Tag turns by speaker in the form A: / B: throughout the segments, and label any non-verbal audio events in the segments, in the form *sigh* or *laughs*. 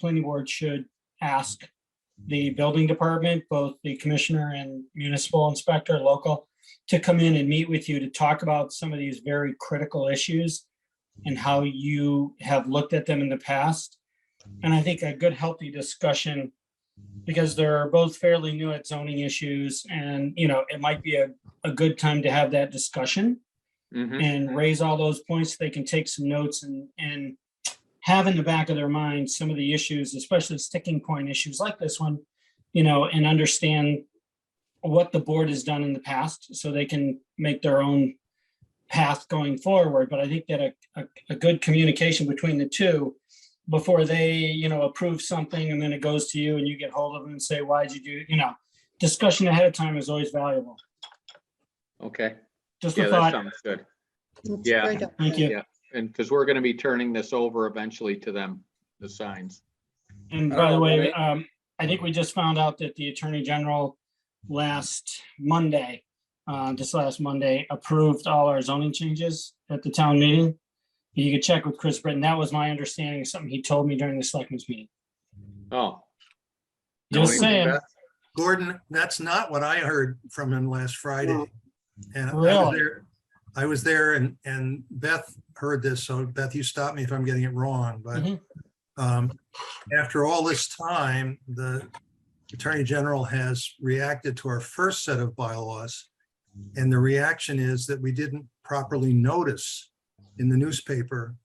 A: planning board should ask the building department, both the commissioner and municipal inspector, local, to come in and meet with you to talk about some of these very critical issues and how you have looked at them in the past. And I think a good healthy discussion, because they're both fairly new at zoning issues and, you know, it might be a, a good time to have that discussion
B: Mhm.
A: and raise all those points. They can take some notes and, and have in the back of their mind some of the issues, especially sticking point issues like this one, you know, and understand what the board has done in the past so they can make their own path going forward. But I think that a, a, a good communication between the two before they, you know, approve something and then it goes to you and you get hold of them and say, why'd you do, you know, discussion ahead of time is always valuable.
B: Okay,
A: Just
B: yeah,
A: a
B: that
A: thought.
B: sounds good.
C: It's
B: Yeah.
C: right up
A: Thank
C: there.
A: you.
B: And because we're going to be turning this over eventually to them, the signs.
A: And
D: I
A: by the
D: don't know,
A: way,
D: maybe-
A: um, I think we just found out that the Attorney General last Monday, uh, this last Monday, approved all our zoning changes at the town meeting. You could check with Chris Britton. That was my understanding, something he told me during the selectmen's meeting.
B: Oh.
A: Just
B: knowing
A: saying,
B: Beth,
D: Gordon, that's not what I heard from him last Friday. And I was
A: Really?
D: there, I was there and, and Beth heard this, so Beth, you stop me if I'm getting it wrong, but
A: Mhm.
D: um, after all this time, the Attorney General has reacted to our first set of bylaws. And the reaction is that we didn't properly notice in the newspaper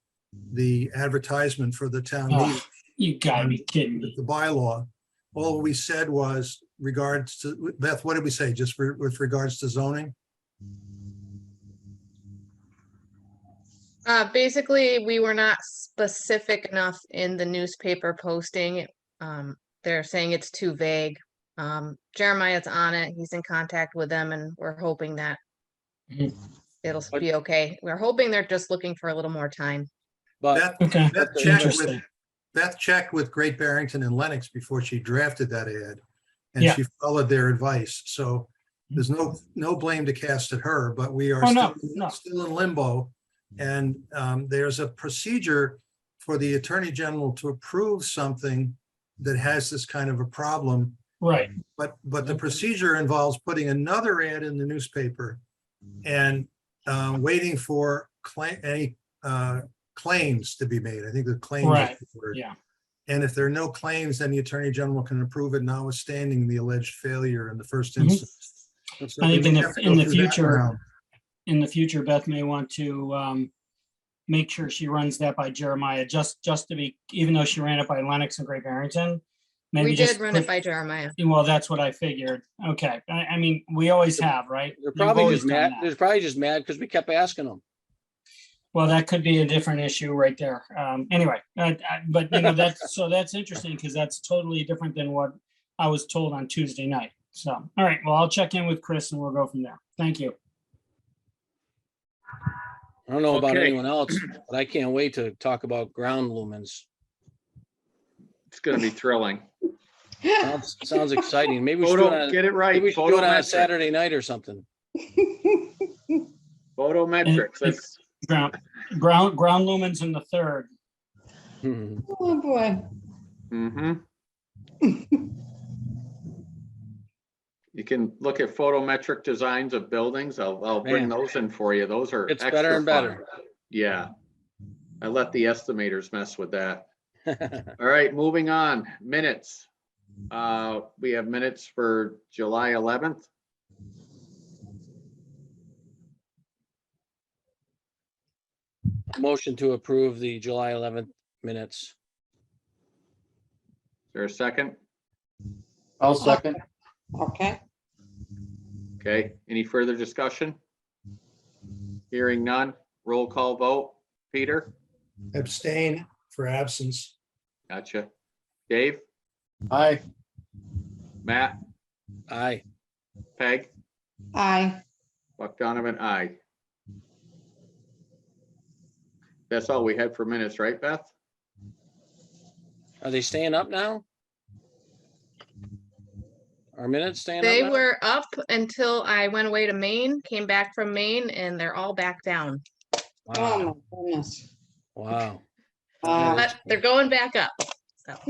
D: the advertisement for the town
A: Oh.
D: meeting
A: you gotta be kidding me.
D: the bylaw, all we said was regards to, Beth, what did we say? Just re- with regards to zoning?
C: Uh, basically, we were not specific enough in the newspaper posting. Um, they're saying it's too vague. Um, Jeremiah's on it. He's in contact with them and we're hoping that
A: Mhm.
C: it'll
B: But-
C: be okay. We're hoping they're just looking for a little more time.
D: Beth,
E: But
A: Okay,
D: Beth checked with,
A: Uh, interesting.
D: Beth checked with Great Barrington and Lennox before she drafted that ad. And
A: Yeah. Mm-hmm.
D: she followed their advice. So there's no, no blame to cast at her, but we are
A: Oh, no, no.
D: still, still in limbo. And um, there's a procedure for the Attorney General to approve something that has this kind of a problem.
A: Right,
D: But, but the
A: Okay.
D: procedure involves putting another ad in the newspaper
A: Mm-hmm.
D: and uh, waiting for claim, any uh, claims to be made. I think the claims. is
A: Right,
D: the word.
A: yeah.
D: And if there are no claims, then the Attorney General can approve it notwithstanding the alleged failure in the first
A: Mhm.
D: instance. So
A: I
D: we
A: think in
D: may
A: the-
D: have to
A: in
D: go
A: the
D: through that
A: future-
D: round.
A: In the future, Beth may want to, um, make sure she runs that by Jeremiah, just, just to be, even though she ran it by Lennox and Great Barrington.
C: We
A: maybe
C: did
A: just
C: run it
A: put-
C: by Jeremiah.
A: Well, that's what I figured. Okay. I, I mean, we always have, right?
E: they're
A: We've
E: probably
A: always
E: just
A: done
E: mad,
A: that.
E: they're probably just mad because we kept asking them.
A: Well, that could be a different issue right there. Um, anyway, uh, uh, but you know, that's, so that's interesting because that's totally different than what I was told on Tuesday night. So, all right, well, I'll check in with Chris and we'll go from there. Thank you.
E: I don't know about
B: Okay. *clears throat*
E: anyone else, but I can't wait to talk about ground lumens.
B: It's going to be thrilling.
E: Sounds, sounds exciting. Maybe we should do it
B: Photo,
E: on,
B: get it
E: maybe
B: right.
E: we should do it on a
B: Photometric,
E: Saturday night or something. *laughs*
B: photometrics. That's-
A: Ground, ground, ground lumens in the third.
E: Hmm.
F: Oh, boy.
E: Mm-hmm.
B: mhm. You can look at photometric designs of buildings. I'll, I'll bring
E: Man.
B: those in for you. Those are.
E: It's
B: extra
E: better and
B: fun.
E: better.
B: Yeah. I let the estimators mess with that.
E: *laughs*
B: All right, moving on, minutes. Uh, we have minutes for July eleventh.
E: Motion to approve the July eleventh minutes.
B: Is there a second?
G: I'll second.
F: Okay.
B: Okay, any further discussion? Hearing none, roll call vote. Peter,
D: Abstain for absence.
B: gotcha. Dave,
G: Aye.
B: Matt,
E: Aye.
B: Peg,
F: Aye.
B: Buck Donovan, aye. That's all we had for minutes, right, Beth?
E: Are they staying up now? Are minutes staying up?
C: They
E: now?
C: were up until I went away to Maine, came back from Maine and they're all back down.
E: Wow.
F: Oh, my goodness.
E: Wow.
F: Uh,
B: Oh,
C: But they're going back up.